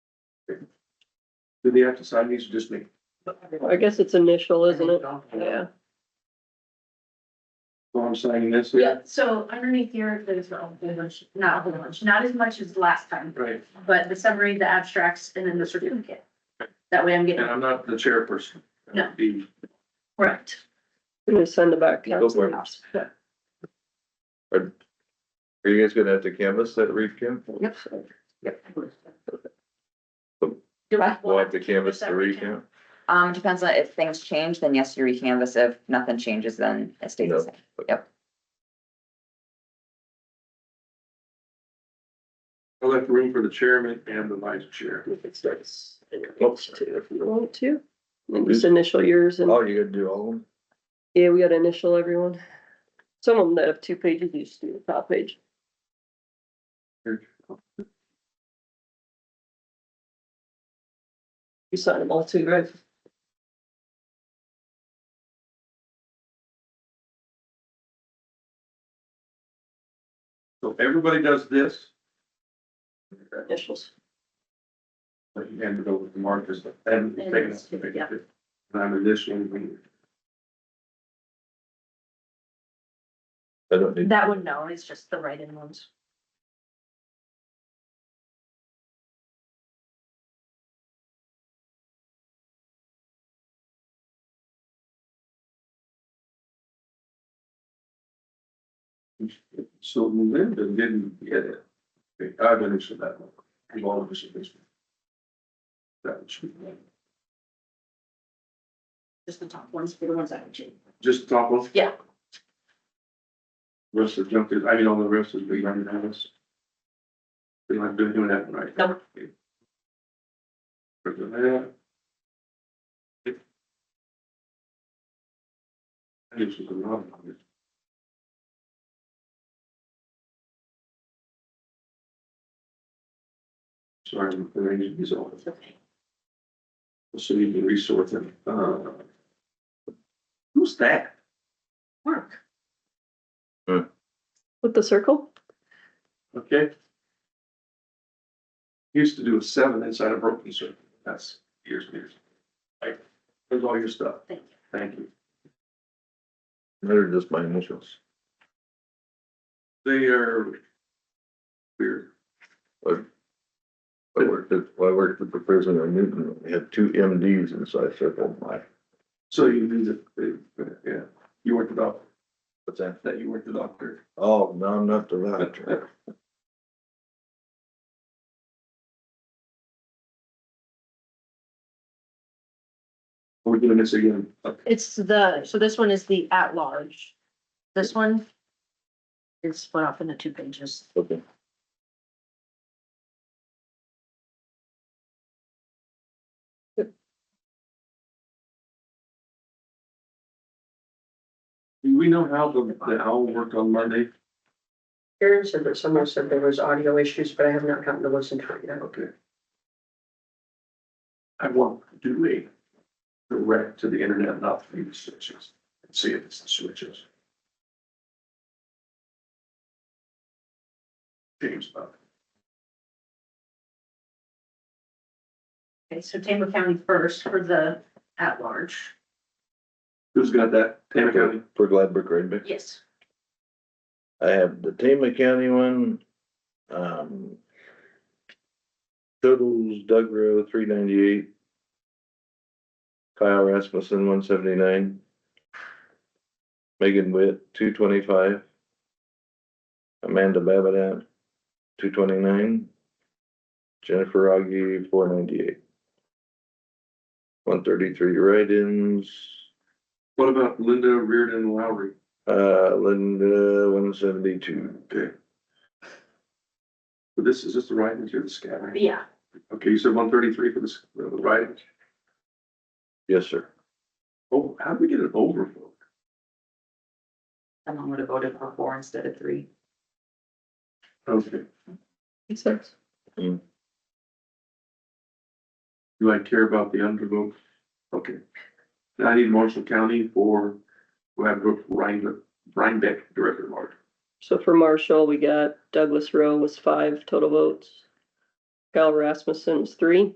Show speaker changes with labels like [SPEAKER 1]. [SPEAKER 1] Do they have to sign these or just me?
[SPEAKER 2] I guess it's initial, isn't it? Yeah,
[SPEAKER 1] So I'm signing this here?
[SPEAKER 3] Yeah, so underneath here, there's a whole bunch, not a whole bunch, not as much as last time,
[SPEAKER 1] Right,
[SPEAKER 3] but the summary, the abstracts, and then the certificate. That way I'm
[SPEAKER 1] and
[SPEAKER 3] getting
[SPEAKER 1] I'm not the chairperson.
[SPEAKER 3] No.
[SPEAKER 1] The-
[SPEAKER 3] correct.
[SPEAKER 2] I'm gonna send it back.
[SPEAKER 4] Go for it. Are you guys gonna have to canvas that reef, Kim?
[SPEAKER 5] Yep. Yep.
[SPEAKER 3] Do I
[SPEAKER 4] We'll
[SPEAKER 3] want
[SPEAKER 4] have to canvas the reef, yeah?
[SPEAKER 5] Um, depends on if things change, then yes, you recanvas. If nothing changes, then it stays the
[SPEAKER 4] Yep.
[SPEAKER 5] same.
[SPEAKER 1] I left room for the chairman and the vice chair.
[SPEAKER 2] You could start s- in your notes too, if you want to. And just initial yours and,
[SPEAKER 4] Oh, you gonna do all of them?
[SPEAKER 2] yeah, we gotta initial everyone. Some of them that have two pages, you just do the top page. You sign them all too, right?
[SPEAKER 1] So everybody does this,
[SPEAKER 2] Your Initials.
[SPEAKER 1] but you hand it over to Marcus, and
[SPEAKER 3] And
[SPEAKER 1] taking
[SPEAKER 3] it's- yeah.
[SPEAKER 1] it. And I'm initialing.
[SPEAKER 4] I don't need,
[SPEAKER 3] That one, no, it's just the write-in ones.
[SPEAKER 1] So Linda didn't get it. Okay, I've initialed that one. We've all initialed this one. That one should be-
[SPEAKER 3] Just the top ones, for the ones I can change.
[SPEAKER 1] Just the top one?
[SPEAKER 3] Yeah.
[SPEAKER 1] Rest of junk is, I mean, all the rest is big on us. We don't have to do doing that one, right?
[SPEAKER 3] Nope.
[SPEAKER 1] Okay. Look at that. I think she's a lot of it. Sorry, I'm arranging these all.
[SPEAKER 3] It's okay.
[SPEAKER 1] So you can resort them. Uh, Who's that?
[SPEAKER 3] Work.
[SPEAKER 2] With the circle?
[SPEAKER 1] Okay. Used to do a seven inside a broken circle. That's years and years. Like, there's all your stuff.
[SPEAKER 3] Thank you.
[SPEAKER 1] Thank you.
[SPEAKER 4] they're just my initials.
[SPEAKER 1] They are weird.
[SPEAKER 4] I worked at, I worked at the prison in Newton, we had two MDs inside circle, my,
[SPEAKER 1] So you knew that, yeah, you weren't the doctor,
[SPEAKER 4] what's that?
[SPEAKER 1] that you weren't the doctor.
[SPEAKER 4] Oh, no, I'm not the doctor.
[SPEAKER 1] We're doing this again.
[SPEAKER 3] It's the, so this one is the at-large. This one is split off into two pages.
[SPEAKER 4] Okay.
[SPEAKER 1] Do we know how the, the owl worked on Monday?
[SPEAKER 6] Karen said that someone said there was audio issues, but I have not gotten to listen to it yet.
[SPEAKER 1] Okay. I want to do a direct to the internet, not through the switches, and see if it's the switches. James, uh,
[SPEAKER 3] Okay, so Tampa County first for the at-large.
[SPEAKER 1] who's got that? Tammy County?
[SPEAKER 4] For Gladbrook Redbeck.
[SPEAKER 3] Yes.
[SPEAKER 4] I have the Tama County one, um. Totals Doug Rowe, three ninety-eight. Kyle Rasmussen, one seventy-nine. Megan Witt, two twenty-five. Amanda Babidat, two twenty-nine. Jennifer Augie, four ninety-eight. One thirty-three write-ins.
[SPEAKER 1] What about Linda Reardon Lowry?
[SPEAKER 4] Uh, Linda, one seventy-two.
[SPEAKER 1] Okay. So this is just the write-ins or the scattering?
[SPEAKER 3] Yeah.
[SPEAKER 1] Okay, you said one thirty-three for the, s- for the write-ins.
[SPEAKER 4] Yes, sir.
[SPEAKER 1] Oh, how did we get an overflow?
[SPEAKER 5] Someone would have voted for four instead of three.
[SPEAKER 1] Okay, Mm.
[SPEAKER 2] Makes sense.
[SPEAKER 1] do I care about the undervote? Okay. Now I need Marshall County for, we have Rhinebeck, Rhinebeck Director Mark.
[SPEAKER 2] So for Marshall, we got Douglas Rowe was five total votes. Kyle Rasmussen was three.